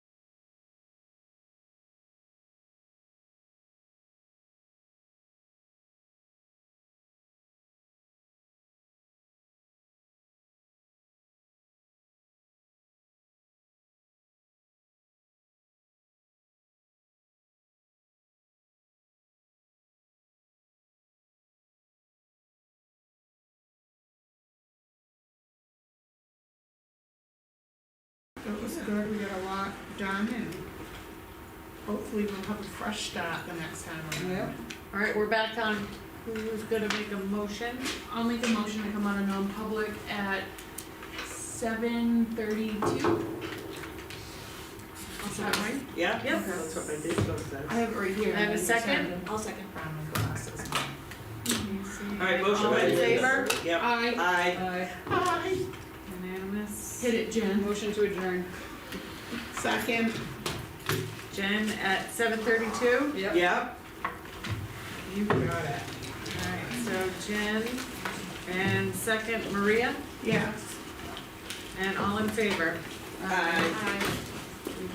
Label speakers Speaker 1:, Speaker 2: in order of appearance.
Speaker 1: it was good, we got a lot done, and hopefully we'll have a fresh start the next time around.
Speaker 2: Alright, we're back on who's gonna make a motion.
Speaker 3: I'll make a motion to come out of non-public at seven thirty-two. Is that right?
Speaker 4: Yeah?
Speaker 2: Yep.
Speaker 4: That's what my big book
Speaker 3: I
Speaker 4: says.
Speaker 3: have it right here.
Speaker 2: I have a second.
Speaker 1: I'll second Brown and glasses.
Speaker 4: Alright, motion
Speaker 2: All
Speaker 4: by.
Speaker 2: in favor?
Speaker 4: Yep.
Speaker 3: Aye,
Speaker 4: Aye.
Speaker 1: Hi,
Speaker 2: Unanimous.
Speaker 3: hit it, Jen.
Speaker 2: Motion to adjourn.
Speaker 1: second.
Speaker 2: Jen at seven thirty-two? Yep.
Speaker 4: Yep.
Speaker 1: You got it.
Speaker 2: Alright, so Jen and second Maria,
Speaker 1: Yes.
Speaker 2: and all in favor?
Speaker 4: Aye.
Speaker 3: Aye.